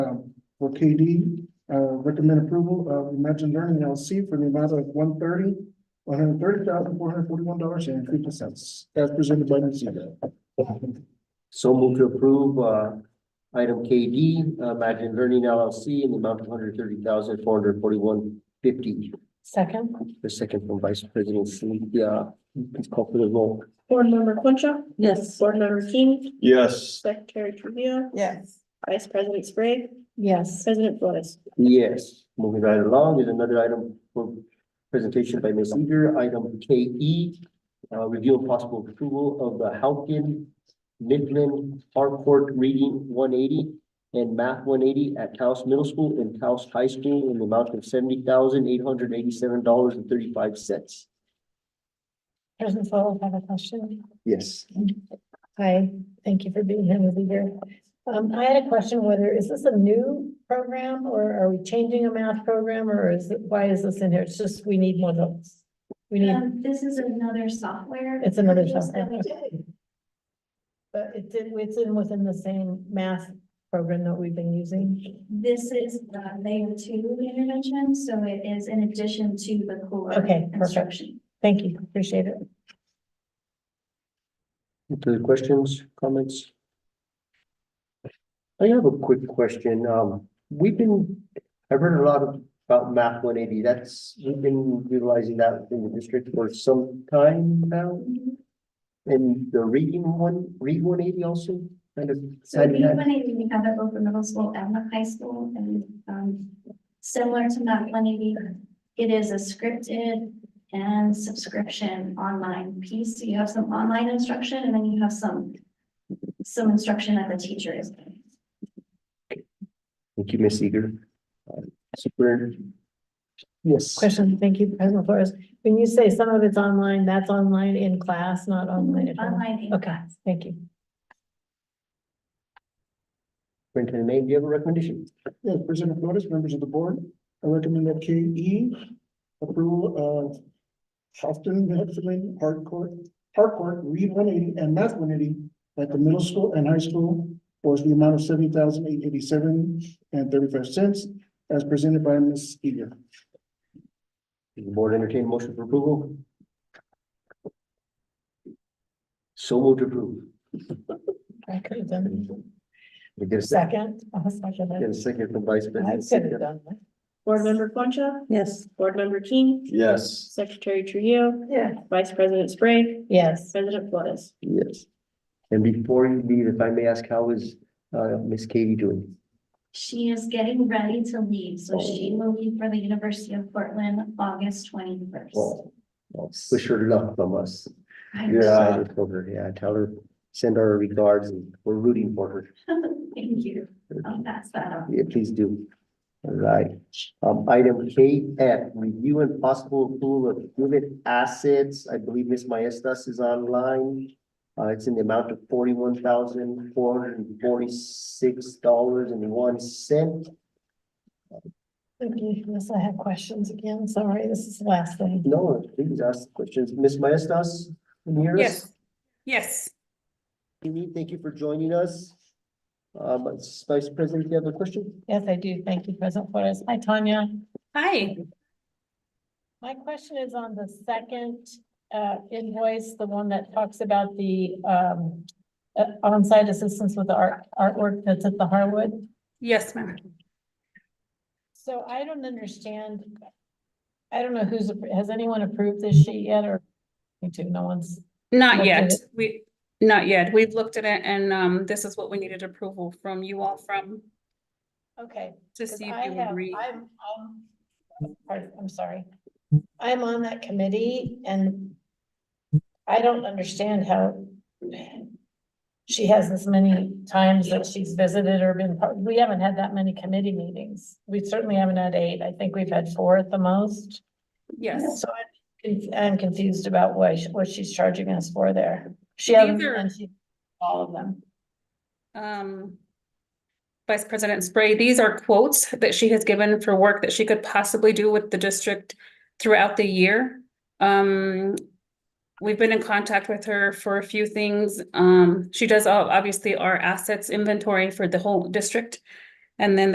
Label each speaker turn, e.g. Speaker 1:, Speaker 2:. Speaker 1: uh, KD, uh, recommend approval of Imagine Learning LLC for the amount of one thirty, one hundred thirty thousand, four hundred forty-one dollars and fifty cents, as presented by Ms. Zito.
Speaker 2: So move to approve, uh, item KD, Imagine Learning LLC in the amount of hundred thirty thousand, four hundred forty-one fifty.
Speaker 3: Second.
Speaker 2: The second from Vice President Cynthia, please call for the roll.
Speaker 4: Board Member Quincha,
Speaker 3: Yes.
Speaker 4: Board Member King,
Speaker 5: yes,
Speaker 4: Secretary Trivia,
Speaker 6: yes,
Speaker 4: Vice President Sprague,
Speaker 3: Yes.
Speaker 4: President Flores.
Speaker 2: Yes, moving right along is another item for presentation by Ms. Eager, item KE. Uh, review of possible approval of the Halkin Midland Harcourt Reading one eighty and Math one eighty at Taos Middle School and Taos High School in the amount of seventy thousand eight hundred eighty-seven dollars and thirty-five cents.
Speaker 3: President Foil, I have a question.
Speaker 2: Yes.
Speaker 3: Hi, thank you for being here with me here. Um, I had a question whether, is this a new program or are we changing a math program or is, it- why is this in here? It's just, we need more notes. We need,
Speaker 7: Um, this is another software.
Speaker 3: it's another
Speaker 7: piece that
Speaker 3: software.
Speaker 7: we did.
Speaker 3: But it's in, it's in within the same math program that we've been using.
Speaker 7: This is the layer two intervention, so it is in addition to the core.
Speaker 3: Okay, perfect.
Speaker 7: instruction.
Speaker 3: Thank you, appreciate it.
Speaker 2: Any other questions, comments? I have a quick question. Um, we've been, I've heard a lot about math one eighty. That's, we've been utilizing that in the district for some time now. And the reading one, read one eighty also kind of.
Speaker 7: So we have an- we have it both in middle school and the high school and, um, similar to Math one eighty. It is a scripted and subscription online piece. So you have some online instruction and then you have some, some instruction that the teacher is. doing.
Speaker 2: Thank you, Miss Eager. Uh, Super,
Speaker 1: Yes.
Speaker 3: Question, thank you, President Flores. When you say some of it's online, that's online in class, not online at home?
Speaker 7: Online. in
Speaker 3: Okay,
Speaker 7: class.
Speaker 3: thank you.
Speaker 2: Superintendent May, do you have a recommendation?
Speaker 1: Yes, President Flores, members of the board, I recommend that K E approval of Houghton Mifflin Harcourt, Harcourt Read one eighty and Math one eighty at the middle school and high school for the amount of seventy thousand eight eighty-seven and thirty-five cents as presented by Ms. Eager.
Speaker 2: Does The board entertain a motion for approval? So moved to approve.
Speaker 3: I could have done
Speaker 2: We get a second.
Speaker 3: second. I'll second
Speaker 2: Get
Speaker 3: it.
Speaker 2: a second from Vice
Speaker 3: I
Speaker 2: President.
Speaker 3: could have
Speaker 2: Cynthia.
Speaker 3: done that.
Speaker 4: Board Member Quincha,
Speaker 6: yes.
Speaker 4: Board Member King,
Speaker 5: yes,
Speaker 4: Secretary Trujillo,
Speaker 3: Yeah.
Speaker 4: Vice President Sprague,
Speaker 3: Yes,
Speaker 4: President Flores.
Speaker 2: Yes. And before you leave, if I may ask, how is uh Miss Katie doing?
Speaker 7: She is getting ready to leave, so she will leave for the University of Portland, August twenty-first.
Speaker 2: Well, well, wish her luck from us. You're
Speaker 5: Yeah.
Speaker 2: excited for her. Yeah, tell her, send our regards and we're rooting for her.
Speaker 7: Thank you. I'll pass that on.
Speaker 2: Yeah, please do. All right. Um, item K F, review and possible approval of unit assets. I believe Miss Maestas is online. Uh, it's in the amount of forty-one thousand, four hundred and forty-six dollars and one cent.
Speaker 3: okay, unless I have questions again, sorry, this is the last thing.
Speaker 2: No, please ask questions. Miss Maestas? can you hear us?
Speaker 8: Yes. Yes.
Speaker 2: Amy, thank you for joining us. Um, Vice President, do you have a question?
Speaker 3: Yes, I do, thank you, President Flores. Hi, Tanya.
Speaker 8: Hi.
Speaker 3: My question is on the second uh invoice, the one that talks about the um uh, onsite assistance with the art artwork that's at the Harwood.
Speaker 8: Yes, ma'am.
Speaker 3: So I don't understand. I don't know who's, has anyone approved this sheet yet or? Me too, no one's,
Speaker 8: Not
Speaker 3: Looked at
Speaker 8: yet.
Speaker 3: it.
Speaker 8: We, not yet. We've looked at it and um, this is what we needed approval from you all from
Speaker 3: okay.
Speaker 8: to
Speaker 3: 'Cause
Speaker 8: see
Speaker 3: I
Speaker 8: if you
Speaker 3: have-
Speaker 8: agree.
Speaker 3: I'm, I'm, pardon, I'm sorry. I'm on that committee and I don't understand how she has this many times that she's visited or been, part- we haven't had that many committee meetings. We certainly haven't had eight. I think we've had four at the most.
Speaker 8: Yes.
Speaker 3: So I'm, conf- I'm confused about why, she- what she's charging us for there. She
Speaker 8: These
Speaker 3: hasn't,
Speaker 8: are-
Speaker 3: and she, all of them.
Speaker 8: Um, Vice President Spray, these are quotes that she has given for work that she could possibly do with the district throughout the year. Um, we've been in contact with her for a few things. Um, she does ob- obviously our assets inventory for the whole district. And then